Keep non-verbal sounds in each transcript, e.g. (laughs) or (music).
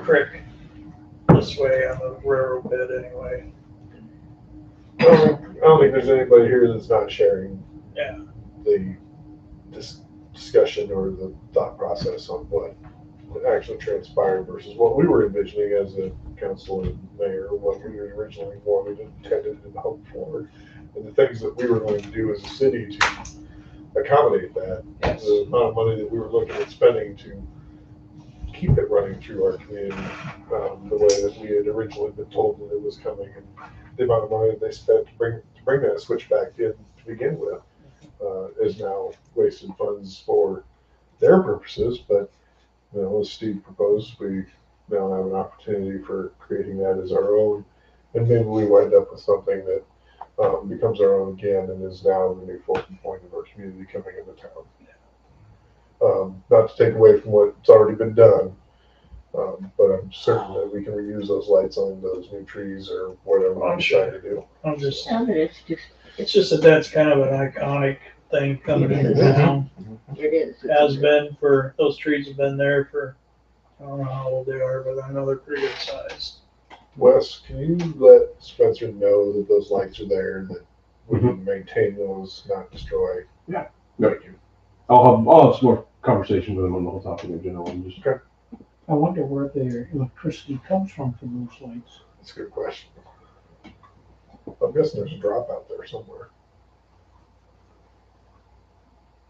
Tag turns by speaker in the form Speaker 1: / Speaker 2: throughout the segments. Speaker 1: creek this way on the railroad bed anyway.
Speaker 2: I don't I don't think there's anybody here that's not sharing
Speaker 1: Yeah.
Speaker 2: the dis- discussion or the thought process on what actually transpired versus what we were envisioning as a council and mayor, what we originally wanted, intended, and hoped for, and the things that we were going to do as a city to accommodate that.
Speaker 3: Yes.
Speaker 2: The amount of money that we were looking at spending to keep it running through our community, um, the way that we had originally been told that it was coming, and the amount of money that they spent to bring, to bring that switch back in to begin with, uh, is now wasted funds for their purposes, but, you know, as Steve proposed, we now have an opportunity for creating that as our own, and maybe we wind up with something that, um, becomes our own again and is now the new focal point of our community coming into town. Um, not to take away from what's already been done, um, but I'm certain that we can reuse those lights on those new trees or whatever
Speaker 1: Oh,
Speaker 2: we
Speaker 1: I'm sure.
Speaker 2: decide to do.
Speaker 1: I'm just,
Speaker 4: Now that it's just,
Speaker 1: it's just that that's kind of an iconic thing coming into town.
Speaker 4: it is. it's
Speaker 1: Has
Speaker 4: a-
Speaker 1: been for, those trees have been there for, I don't know how old they are, but I know they're pretty good sized.
Speaker 2: Wes, can you let Spencer know that those lights are there and that we can maintain those, not destroy?
Speaker 5: Yeah.
Speaker 2: Thank you.
Speaker 5: I'll have, I'll have some more conversation with him on the whole topic in general, and just,
Speaker 6: I wonder where their electricity comes from for those lights.
Speaker 2: That's a good question. I'm guessing there's a drop out there somewhere.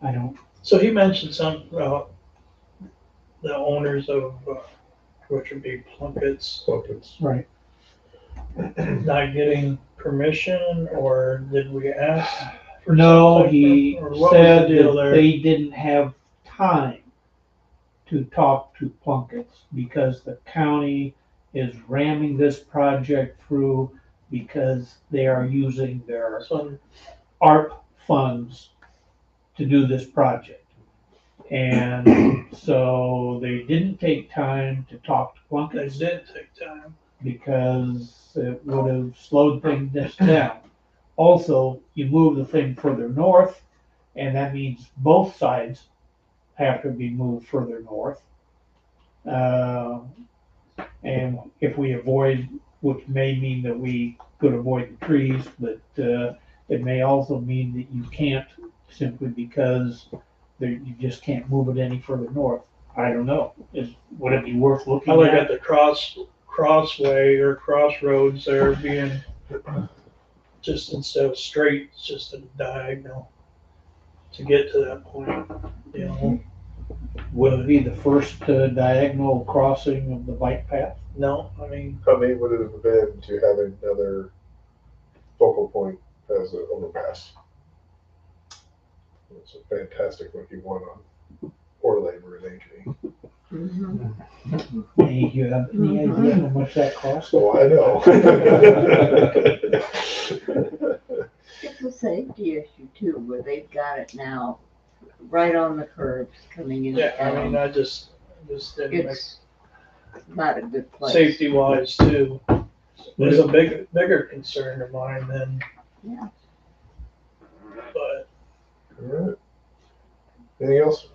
Speaker 6: I don't,
Speaker 1: So he mentioned something about the owners of, uh, which would be Plunkett's, (clears throat)
Speaker 2: So it's,
Speaker 6: right.
Speaker 1: not getting permission, or did we ask? for
Speaker 6: No,
Speaker 1: something,
Speaker 6: he
Speaker 1: or what was the
Speaker 6: said
Speaker 1: deal
Speaker 6: that
Speaker 1: there?
Speaker 6: they didn't have time to talk to Plunkett's because the county is ramming this project through because they are using their
Speaker 1: So
Speaker 6: ARP funds to do this project. And so they didn't take time to talk to
Speaker 1: they
Speaker 6: Plunkett's.
Speaker 1: did take time.
Speaker 6: because it would have slowed things down. Also, you move the thing further north, and that means both sides have to be moved further north. Uh, and if we avoid, which may mean that we could avoid the trees, but uh, it may also mean that you can't simply because there, you just can't move it any further north. I don't know. Is, would it be worth looking
Speaker 1: I
Speaker 6: at?
Speaker 1: look at the cross, crossway or crossroads there being just instead of straight, it's just a diagonal to get to that point, you know?
Speaker 6: Would it be the first uh, diagonal crossing of the bike (laughs) path?
Speaker 1: No, I mean,
Speaker 2: how neat would it have been to have another focal point as an overpass? It's a fantastic looking one on Orland or Ankeny.
Speaker 4: Mhm.
Speaker 6: Any, you have any idea
Speaker 4: Mm-hmm.
Speaker 6: how much that costs?
Speaker 2: So Oh, I know.
Speaker 4: It's a safety issue too, where they've got it now, right on the curbs coming in.
Speaker 1: yeah, I mean, I just, just didn't make
Speaker 4: It's not a good place.
Speaker 1: safety wise too. There's a big, bigger concern of mine than.
Speaker 4: Yeah.
Speaker 1: But,
Speaker 2: Alright. Anything else?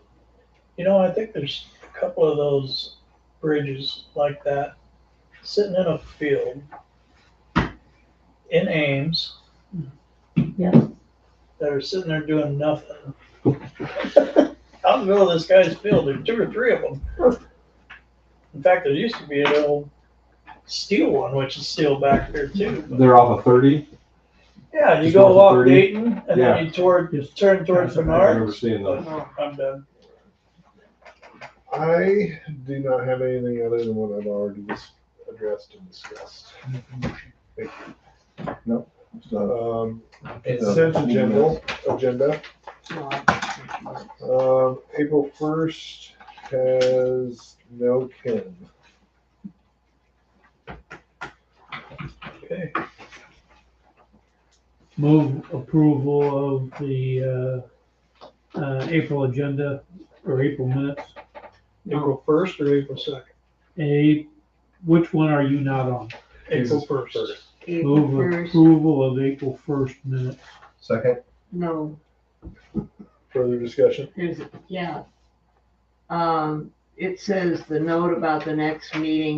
Speaker 1: you know, I think there's a couple of those bridges like that sitting in a field in Ames.
Speaker 4: Yeah.
Speaker 1: That are sitting there doing nothing. (laughs) Out in the middle of this guy's field, there's two or three of them. In fact, there used to be an old steel one, which is still back there too. but-
Speaker 5: they're off of thirty.
Speaker 1: Yeah, you
Speaker 5: Just
Speaker 1: go
Speaker 5: north of
Speaker 1: off
Speaker 5: 30?
Speaker 1: Dayton and
Speaker 5: Yeah.
Speaker 1: then you toward, you turn towards
Speaker 5: I remember
Speaker 1: Menard.
Speaker 5: seeing those.
Speaker 1: I'm done.
Speaker 2: I do not have anything other than what I've already dis- addressed and discussed. Um, consent agenda, agenda,
Speaker 4: Well,
Speaker 2: um, April first has no Ken.
Speaker 1: Okay.
Speaker 6: Move approval of the uh, uh, April agenda or April minutes.
Speaker 1: April first or April second?
Speaker 6: A, which one are you not on?
Speaker 1: April first.
Speaker 4: April
Speaker 6: Move
Speaker 4: first,
Speaker 6: approval of April first minutes.
Speaker 2: Second.
Speaker 4: no,
Speaker 2: Further discussion?
Speaker 4: there's, yeah. Um, it says the note about the next meeting